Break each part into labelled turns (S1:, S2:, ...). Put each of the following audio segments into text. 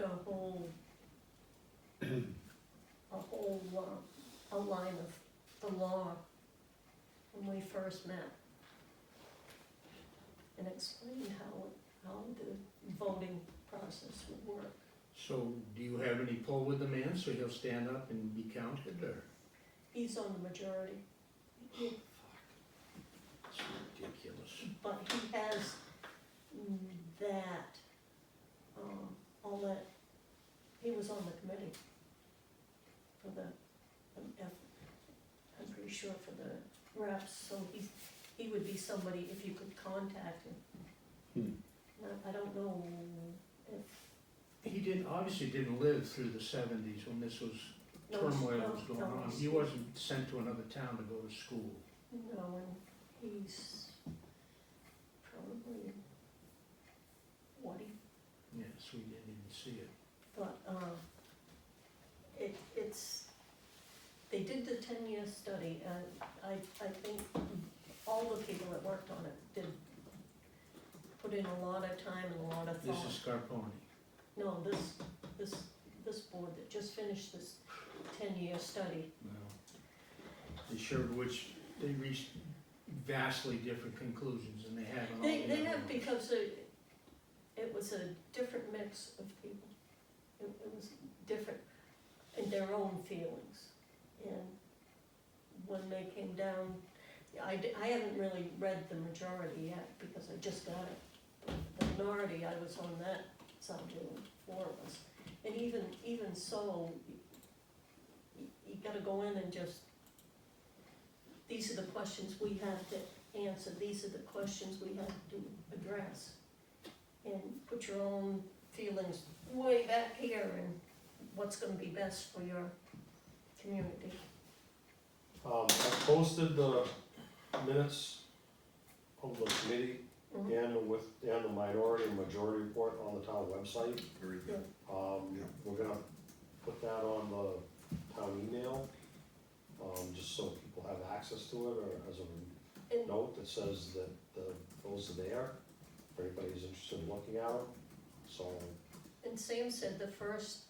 S1: a whole, a whole, uh, a line of the law when we first met. And explained how, how the voting process would work.
S2: So do you have any pull with the man so he'll stand up and be counted or?
S1: He's on the majority,
S2: Fuck. It's ridiculous.
S1: but he has mm, that, um, all that, he was on the committee for the, um, F, I'm pretty sure for the reps, so he's, he would be somebody if you could contact him. Now, I don't know if,
S2: He didn't, obviously didn't live through the seventies when this was
S1: no,
S2: turmoil
S1: no,
S2: was going
S1: no,
S2: on. He wasn't sent to another town to go to school.
S1: No, and he's probably, what, he
S2: Yes, we didn't even see it.
S1: But, um, it, it's, they did the ten-year study, and I, I think all the people that worked on it did put in a lot of time and a lot of
S2: This
S1: thought.
S2: is Scarponi.
S1: No, this, this, this board that just finished this ten-year study,
S2: No. They showed which, they reached vastly different conclusions than they have on all the
S1: they, they
S2: other
S1: have,
S2: ones.
S1: because it, it was a different mix of people. It, it was different in their own feelings. And when they came down, I, di- I haven't really read the majority yet because I just got it. But The minority, I was on that side doing four of us. And even, even so, you, you gotta go in and just, these are the questions we have to answer, these are the questions we have to address. And put your own feelings way back here and what's gonna be best for your community.
S3: Um, I posted the minutes of the committee
S1: Mhm.
S3: and the with, and the minority and majority report on the town website.
S4: Very good.
S3: Um,
S4: Yeah.
S3: we're gonna put that on the town email, um, just so people have access to it, or as a
S1: And
S3: note that says that the, those are there. If anybody's interested in looking at it, so,
S1: And Sam said the first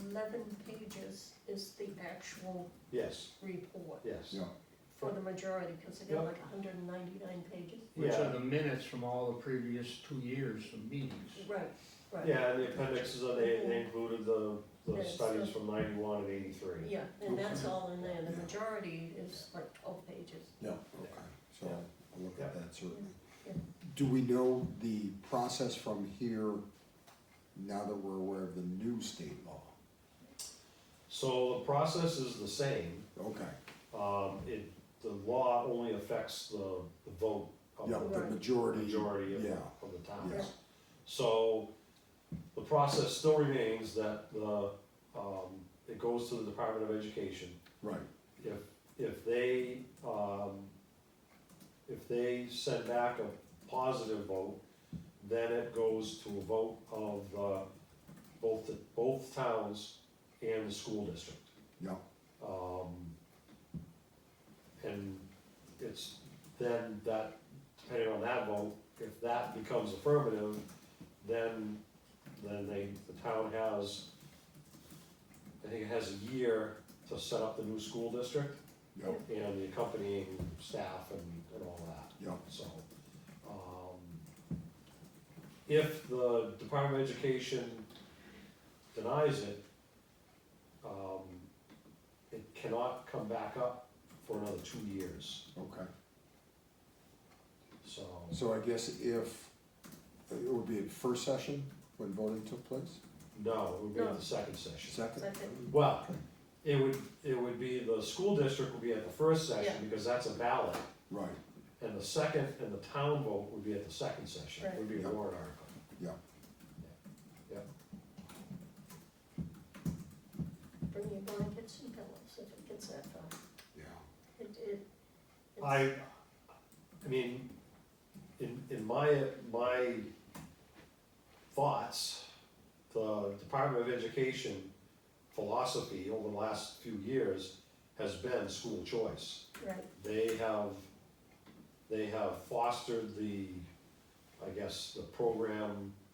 S1: eleven pages is the actual
S3: yes,
S1: report
S3: yes.
S4: Yeah.
S1: for the majority, because they got like hundred and ninety-nine pages.
S2: Which are
S3: Yeah.
S2: the minutes from all the previous two years of meetings.
S1: Right, right.
S3: Yeah, and the appendixes, are- they, they included the, the
S1: Yes.
S3: studies from ninety-one and eighty-three.
S1: Yeah, and that's all in there, the
S4: Yeah.
S1: majority is like twelve pages.
S4: Yeah, okay, so
S3: Yeah.
S4: I'll look at that certainly.
S1: Yeah.
S4: Do we know the process from here, now that we're aware of the new state law?
S3: So the process is the same,
S4: Okay,
S3: um, it, the law only affects the, the vote of
S4: yeah,
S3: the
S4: the
S1: Right.
S4: majority.
S3: majority of,
S4: Yeah,
S3: of the towns.
S4: yes,
S3: So, the process still remains that the, um, it goes to the Department of Education.
S4: right,
S3: If, if they, um, if they send back a positive vote, then it goes to a vote of, uh, both, the- both towns and the school district.
S4: yeah,
S3: Um, and it's then that, depending on that vote, if that becomes affirmative, then, then they, the town has, I think it has a year to set up the new school district
S4: yeah,
S3: and the accompanying staff and, and all that,
S4: yeah,
S3: so. um, If the Department of Education denies it, um, it cannot come back up for another two years,
S4: okay.
S3: so,
S4: So I guess if, it would be at first session when voting took place,
S3: no, it would be at
S1: No.
S3: the second session.
S4: second?
S1: Second.
S3: Well, it would, it would be, the school district would be at the first session,
S1: Yeah.
S3: because that's a ballot,
S4: Right,
S3: and the second, and the town vote would be at the second session, It would be a
S4: Right.
S3: warrant article.
S4: yeah,
S1: Bring your blankets and pillows if it gets that far.
S4: yeah,
S1: It, it. it's-
S3: I, I mean, in, in my, my thoughts, the Department of Education philosophy over the last few years has been school choice.
S1: Right,
S3: They have, they have fostered the, I guess, the program